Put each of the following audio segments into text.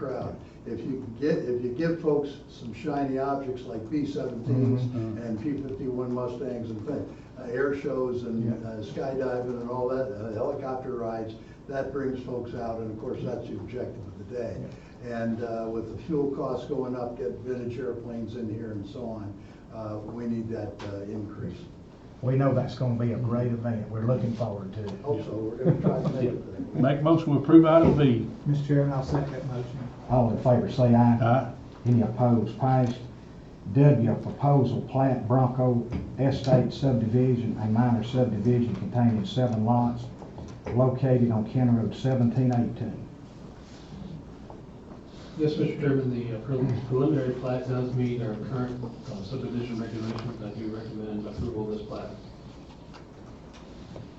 crowd. If you can get, if you give folks some shiny objects like B-17s Mhm. and P-51 Mustangs and things, uh, air shows and Yeah. uh, skydiving and all that, uh, helicopter rides, that brings folks out, and of course, that's the objective of the day. And uh, with the fuel costs going up, get vintage airplanes in here and so on, uh, we need that uh, increase. We know that's gonna be a great event, we're looking forward to it. Hope so, we're gonna try to make it. there. Make a motion to approve item B. Mr. Chairman, I'll second that motion. All in favor, say aye. Aye. Any opposed, passed. W, proposal plat Bronco Estate subdivision, a minor subdivision containing seven lots located on County Road seventeen eighteen. Yes, Mr. Chairman, the uh, prelim- preliminary plat does meet our current uh, subdivision regulations. I do recommend approval of this plat.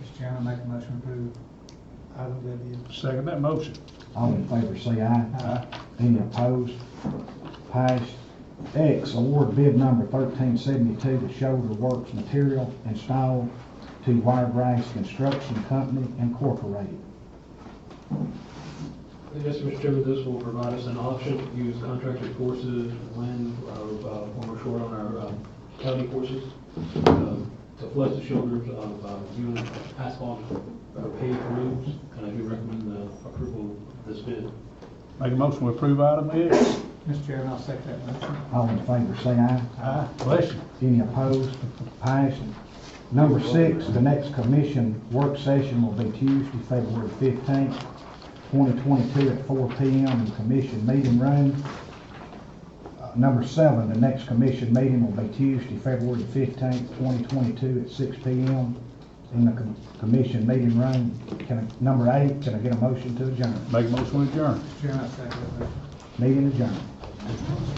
Mr. Chairman, I make a motion to approve item Uh, W. Second that motion. All in favor, say aye. Aye. Any opposed, passed. X, award bid number thirteen seventy-two to Shoulder Works Material installed to Wiregrass Construction Company Incorporated. Yes, Mr. Chairman, this will provide us an option to use contracted forces when uh, uh, when we're short on our uh, county forces um, to flood the shoulders of uh, unit asphalt or paved roads, and I do recommend the approval of this bid. Make a motion to approve item X. Mr. Chairman, I'll second that motion. Uh, All in favor, say aye. Aye. Bless you. Any opposed? Passed. Number six, the next commission work session will be Tuesday, February fifteenth, twenty twenty-two at four P M in commission meeting room. Uh, Number seven, the next commission meeting will be Tuesday, February fifteenth, twenty twenty-two at six P M in the com- commission meeting room. Can I, number eight, can I get a motion to adjourn? Make a motion to adjourn. Mr. Chairman, I'll second that motion. Meeting adjourned.